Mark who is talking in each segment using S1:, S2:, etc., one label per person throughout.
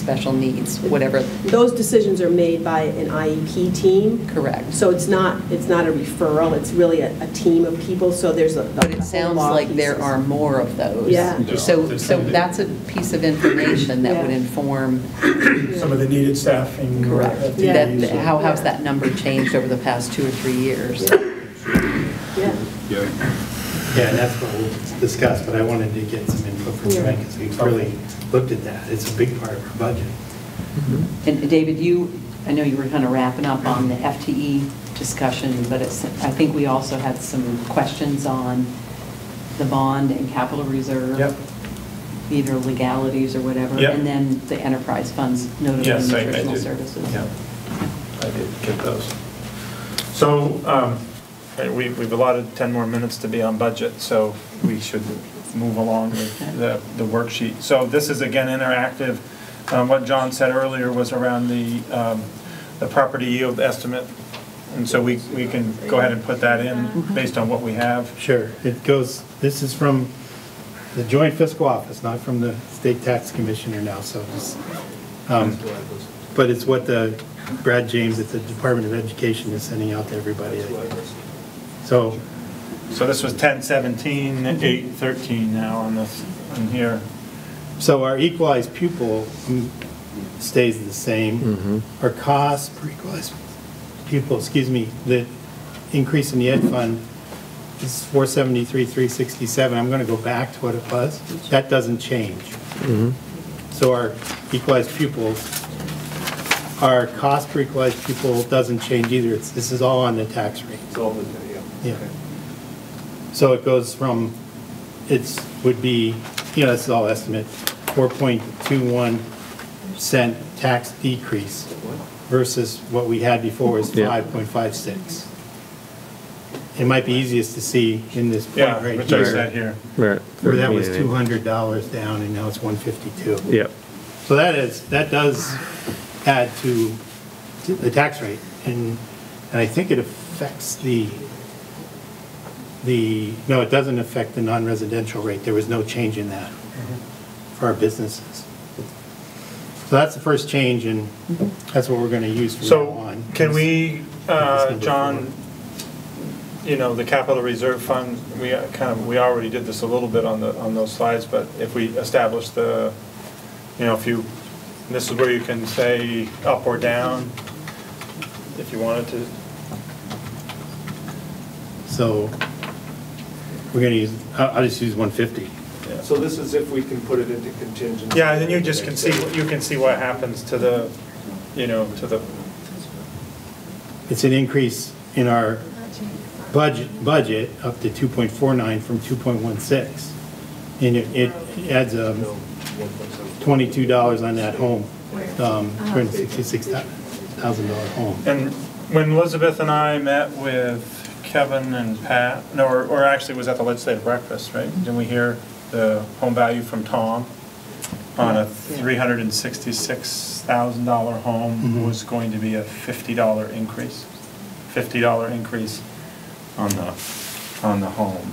S1: special needs, whatever,
S2: Those decisions are made by an IEP team.
S1: correct.
S2: So it's not, it's not a referral, it's really a, a team of people, so there's a.
S1: But it sounds like there are more of those.
S2: Yeah.
S3: No,
S1: So,
S3: there's
S1: so
S3: some that-
S1: that's a piece of information that would
S2: Yeah.
S1: inform,
S4: some of the needed staffing. or
S1: correct,
S4: FTEs,
S1: that,
S4: or-
S1: how has that number changed over the past two or three years?
S2: Yeah.
S3: Yeah,
S5: Yeah, and that's what we'll discuss, but I wanted to get some input from
S2: Yeah.
S5: Frank, because we've really looked at that. It's a big part of our budget.
S1: And David, you, I know you were kind of wrapping up on the FTE discussion, but it's, I think we also had some questions on the bond and capital reserve.
S4: Yep.
S1: Either legalities or whatever.
S4: Yep.
S1: And then the enterprise funds, notably
S4: Yes, I- I
S1: nutritional
S4: did.
S1: services.
S4: Yep. I did get those. So um, hey, we- we've allotted 10 more minutes to be on budget, so we should move along with the the worksheet. So this is again interactive. Um, What John said earlier was around the um, the property yield estimate. And so we we can go ahead and put that in based on what we have.
S5: Sure, it goes, this is from the joint fiscal office, not from the state tax commissioner now, so it's, um, but it's what the, Brad James at the Department of Education is sending out to everybody. So,
S4: So this was 1017, 813 now on this, on here.
S5: so our equalized pupil mm, stays the same. Our cost per equalized pupil, excuse me, the increase in the ed fund is 473, 367. I'm going to go back to what it was. That doesn't change. So our equalized pupils, our cost per equalized pupil doesn't change either. It's, this is all on the tax rate. Yeah. So it goes from, it's, would be, you know, this is all estimate, 4.21 cent tax decrease versus what we had before was
S6: Yeah.
S5: 5.56. It might be easiest to see in this point
S4: Yeah,
S5: right
S4: which I
S5: here.
S4: said here.
S6: Right.
S5: Where that was
S6: Meeting.
S5: $200 down and now it's 152.
S6: Yep.
S5: So that is, that does add to the tax rate, and, and I think it affects the, the, no, it doesn't affect the non-residential rate, there was no change in that for our businesses. So that's the first change, and that's what we're gonna use from now
S4: So
S5: on.
S4: can we, uh,
S5: Yes.
S4: John, you know, the capital reserve fund, we uh, kind of, we already did this a little bit on the, on those slides, but if we establish the, you know, if you, this is where you can say up or down, if you wanted to.
S5: So, we're gonna use, I'll, I'll just use 150.
S4: Yeah.
S7: So this is if we can put it into contingency.
S4: Yeah, and then you just can see, you can see what happens to the, you know, to the,
S5: It's an increase in our budget, budget up to 2.49 from 2.16. And it it adds um, $22 on that home, um, $266,000 home.
S4: And when Elizabeth and I met with Kevin and Pat, no, or, or actually it was at the legislative breakfast, right? Didn't we hear the home value from Tom on a three hundred and sixty-six thousand dollar home
S5: Mhm.
S4: was going to be a fifty dollar increase? Fifty dollar increase on the, on the home.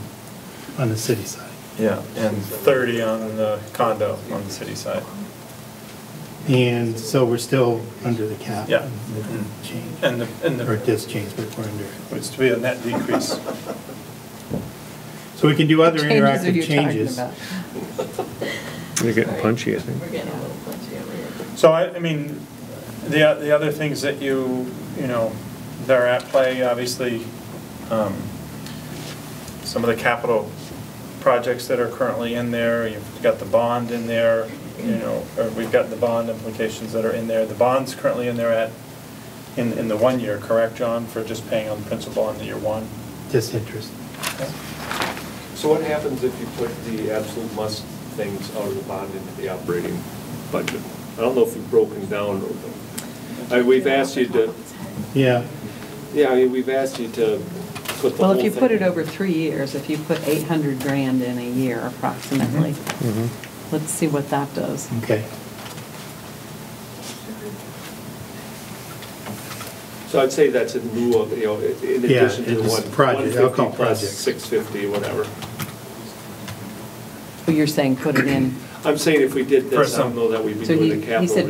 S5: on the city side.
S4: Yeah. And thirty on the condo on the city side.
S5: And so we're still under the cap.
S4: Yeah.
S5: with the Change,
S4: And the, and
S5: or
S4: the,
S5: this change, but we're under it.
S4: it's to be a net decrease.
S5: So we can do other
S1: Changes that
S5: interactive
S1: you're talking
S5: changes.
S1: about.
S6: They're getting punchy, I think.
S4: So I, I mean, the, the other things that you, you know, that are at play, obviously, um, some of the capital projects that are currently in there, you've got the bond in there, you know, or we've got the bond implications that are in there. The bond's currently in there at, in, in the one year, correct, John, for just paying on principal on the year one?
S5: Just interest.
S7: So what happens if you put the absolute must things out of the bond into the operating budget? I don't know if you've broken down, or- I- we've asked you to,
S5: Yeah,
S7: yeah, I mean, we've asked you to put the whole
S1: Well, if you put
S7: thing-
S1: it over three years, if you put 800 grand in a year approximately,
S4: Mm-hmm.
S1: let's see what that does.
S5: okay.
S7: So I'd say that's in lieu of, you know, in
S5: Yeah,
S7: addition to the
S5: it's
S7: one.
S5: project, I'll call
S7: 150 plus
S5: projects.
S7: 650, whatever.
S1: But you're saying put it in
S7: I'm saying if we did
S4: For
S7: this, I
S4: some-
S7: don't know that we'd be
S1: So
S7: doing
S1: he-
S7: the
S1: he
S7: capital.
S1: said